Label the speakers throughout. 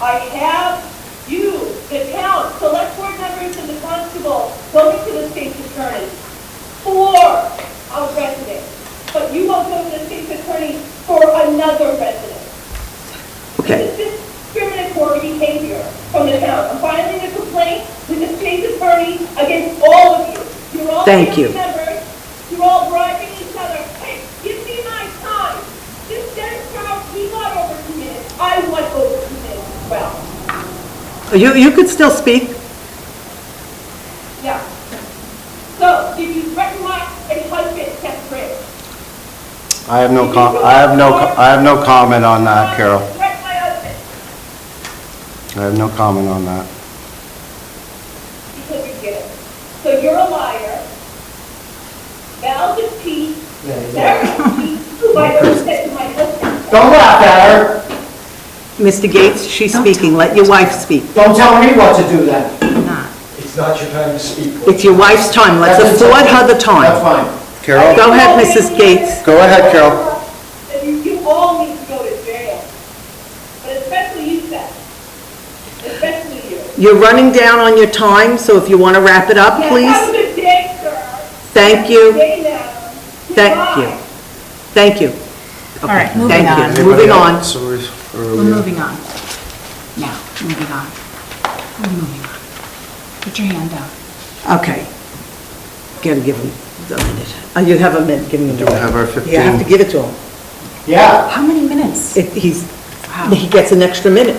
Speaker 1: I have you, the town, select board members and the constable, going to the state's attorney for a resident, but you won't go to the state's attorney for another resident.
Speaker 2: Okay.
Speaker 1: This is discriminatory behavior from the town. I'm filing a complaint with the state attorney against all of you. You're all
Speaker 2: Thank you.
Speaker 1: family members. You're all bribing each other. Hey, give me my time. This Dennis Proud, he got over two minutes. I want over two minutes as well.
Speaker 2: You, you could still speak.
Speaker 1: Yeah. So, did you threaten my husband, Seth Bridge?
Speaker 3: I have no com, I have no, co- I have no comment on that, Carol.
Speaker 1: Threaten my husband
Speaker 3: I have no comment on that.
Speaker 1: because you did it. So you're a liar. Val is Pete. Sarah is Pete, who by the way said to my husband,
Speaker 4: Don't laugh at her.
Speaker 2: Mr. Gates, she's speaking, let your wife speak.
Speaker 4: Don't tell me what to do then.
Speaker 5: It's not your time to speak.
Speaker 2: It's your wife's time, let's
Speaker 4: That's-
Speaker 2: afford her the
Speaker 4: That's
Speaker 2: time.
Speaker 4: fine.
Speaker 3: Carol?
Speaker 2: Go ahead, Mrs. Gates.
Speaker 3: Go ahead, Carol.
Speaker 1: that you, you all need to go to jail. But especially you, Seth. Especially you.
Speaker 2: You're running down on your time, so if you want to wrap it up,
Speaker 1: Yeah, Have a
Speaker 2: Uh, please.
Speaker 1: good day, sir.
Speaker 2: Thank you.
Speaker 1: Day now.
Speaker 2: Thank you.
Speaker 1: Goodbye.
Speaker 2: Thank you.
Speaker 6: All right, moving
Speaker 2: Thank
Speaker 6: on.
Speaker 2: you. Moving on.
Speaker 3: So we're-
Speaker 6: We're
Speaker 3: we're-
Speaker 6: moving on. Now, moving on. We're moving on. Put your hand down.
Speaker 2: Okay. Gotta give him a minute. Uh, You have a minute, give him a minute.
Speaker 3: we have our
Speaker 2: You have to
Speaker 3: 15?
Speaker 2: give it to him.
Speaker 4: Yeah,
Speaker 6: How many minutes?
Speaker 2: It- He's,
Speaker 6: Wow.
Speaker 2: he gets an extra minute.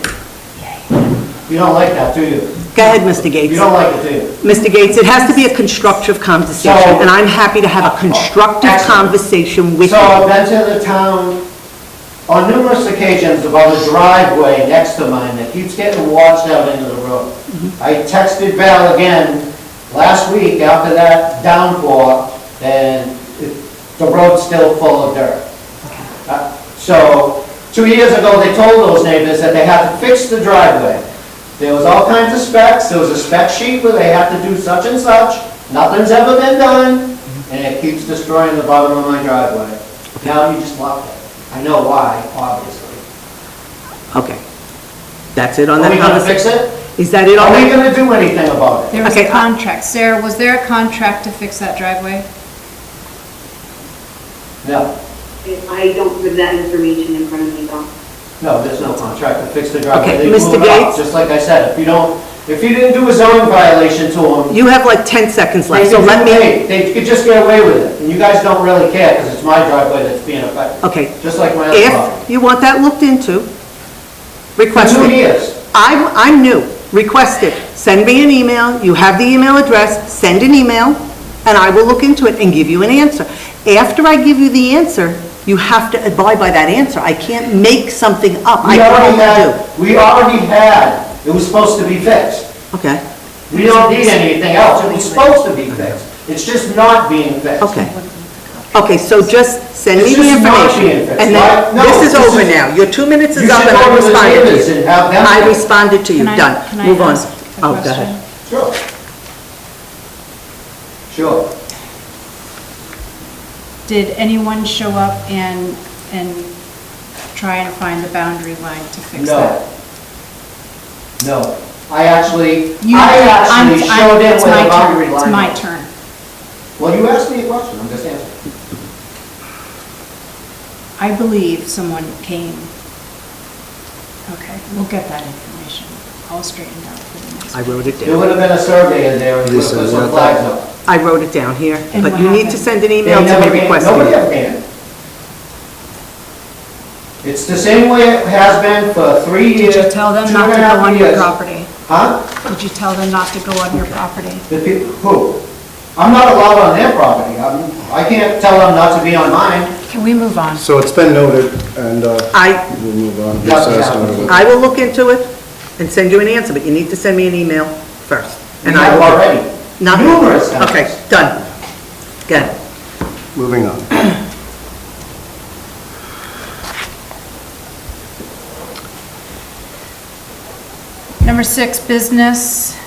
Speaker 4: you don't like that, do you?
Speaker 2: Go ahead, Mr.
Speaker 4: You
Speaker 2: Gates.
Speaker 4: don't like it, do you?
Speaker 2: Mr. Gates, it has to be a constructive conversation,
Speaker 4: So- Oh,
Speaker 2: and I'm happy to have a constructive
Speaker 4: Excellent.
Speaker 2: conversation with
Speaker 4: So
Speaker 2: you.
Speaker 4: I've been to the town on numerous occasions about a driveway next to mine that keeps getting washed out into the road.
Speaker 2: Mm-hmm.
Speaker 4: I texted Val again last week after that downpour, and it- the road's still full of dirt. Uh, So, two years ago, they told those neighbors that they had to fix the driveway. There was all kinds of specs, there was a spec sheet where they had to do such and such, nothing's ever been done, and it keeps destroying the bottom of my driveway. Now you just locked it. I know why, obviously.
Speaker 2: Okay. That's it on
Speaker 4: Are
Speaker 2: that
Speaker 4: we gonna
Speaker 2: conversation?
Speaker 4: fix it?
Speaker 2: Is that it on
Speaker 4: Are we
Speaker 2: that?
Speaker 4: gonna do anything about it?
Speaker 6: There was a
Speaker 2: Okay, I-
Speaker 6: contract. Sarah, was there a contract to fix that driveway?
Speaker 4: No,
Speaker 7: I don't have that information in front of me, though.
Speaker 4: no, there's no contract to fix the driveway.
Speaker 2: Okay,
Speaker 4: They
Speaker 2: Mr.
Speaker 4: blew it up,
Speaker 2: Gates?
Speaker 4: Just like I said, if you don't, if you didn't do a zoning violation to them,
Speaker 2: You have like 10 seconds left, so
Speaker 4: They
Speaker 2: let
Speaker 4: could get
Speaker 2: me,
Speaker 4: away- They could just get away with it, and you guys don't really care, because it's my driveway that's being affected,
Speaker 2: okay.
Speaker 4: just like my other property.
Speaker 2: If you want that looked into,
Speaker 4: For
Speaker 2: request
Speaker 4: two
Speaker 2: it.
Speaker 4: years,
Speaker 2: I'm, I'm new, request it. Send me an email, you have the email address, send an email, and I will look into it and give you an answer. After I give you the answer, you have to abide by that answer. I can't make something up. I
Speaker 4: we
Speaker 2: can
Speaker 4: already had, we already had, it was supposed to be fixed.
Speaker 2: do. Okay,
Speaker 4: We don't need anything else, it was supposed to be fixed, it's just not being fixed.
Speaker 2: okay. Okay, so just send me
Speaker 4: It's
Speaker 2: the
Speaker 4: just not being
Speaker 2: information.
Speaker 4: fixed.
Speaker 2: And then,
Speaker 4: Why- no,
Speaker 2: this is
Speaker 4: this
Speaker 2: over
Speaker 4: is-
Speaker 2: now. Your two minutes
Speaker 4: You
Speaker 2: is up
Speaker 4: should
Speaker 2: and
Speaker 4: go
Speaker 2: I
Speaker 4: to the
Speaker 2: responded
Speaker 4: neighbors
Speaker 2: to you.
Speaker 4: and have them-
Speaker 2: I responded to you,
Speaker 6: Can I- can
Speaker 2: done.
Speaker 6: I
Speaker 2: Move on.
Speaker 6: ask a
Speaker 2: Oh, go
Speaker 6: question?
Speaker 2: ahead.
Speaker 4: Sure. Sure.
Speaker 6: Did anyone show up and, and try and find the boundary line to fix
Speaker 4: No.
Speaker 6: that?
Speaker 4: No. I actually,
Speaker 6: You-
Speaker 4: I
Speaker 6: I'm-
Speaker 4: actually
Speaker 6: I'm-
Speaker 4: showed him
Speaker 6: it's
Speaker 4: where
Speaker 6: my
Speaker 4: the
Speaker 6: turn.
Speaker 4: boundary line.
Speaker 6: It's my
Speaker 4: was.
Speaker 6: turn.
Speaker 4: Well, you asked me a question, I'm just answering.
Speaker 6: I believe someone came. Okay, we'll get that information all straightened out for the next.
Speaker 2: I wrote it
Speaker 4: There
Speaker 2: down.
Speaker 4: would have been a survey in there, and you would
Speaker 3: This
Speaker 4: have put
Speaker 3: is
Speaker 4: some
Speaker 3: not
Speaker 4: flags
Speaker 3: that-
Speaker 4: up.
Speaker 2: I wrote it down here,
Speaker 6: And
Speaker 2: but
Speaker 6: what
Speaker 2: you need to
Speaker 6: happened?
Speaker 2: send an
Speaker 4: They
Speaker 2: email to
Speaker 4: never
Speaker 2: me
Speaker 4: came-
Speaker 2: requesting
Speaker 4: Nobody
Speaker 2: it.
Speaker 4: ever came. It's the same way it has been for three years.
Speaker 6: Did you tell them
Speaker 4: two
Speaker 6: not
Speaker 4: and
Speaker 6: to
Speaker 4: a half
Speaker 6: go on your
Speaker 4: years.
Speaker 6: property?
Speaker 4: Huh?
Speaker 6: Did you tell them not to go on your property?
Speaker 4: The people, who? I'm not allowed on their property. I'm- I can't tell them not to be on mine.
Speaker 6: Can we move on?
Speaker 3: So it's been noted, and uh,
Speaker 2: I,
Speaker 3: we'll move on.
Speaker 4: Yeah,
Speaker 3: So it's
Speaker 4: yeah.
Speaker 3: noted.
Speaker 2: I will look into it and send you an answer, but you need to send me an email first.
Speaker 4: We
Speaker 2: and I
Speaker 4: have
Speaker 2: will-
Speaker 4: already.
Speaker 2: Not-
Speaker 4: Numerous times.
Speaker 2: Okay, done. Good.
Speaker 3: Moving on.
Speaker 6: Number six, business,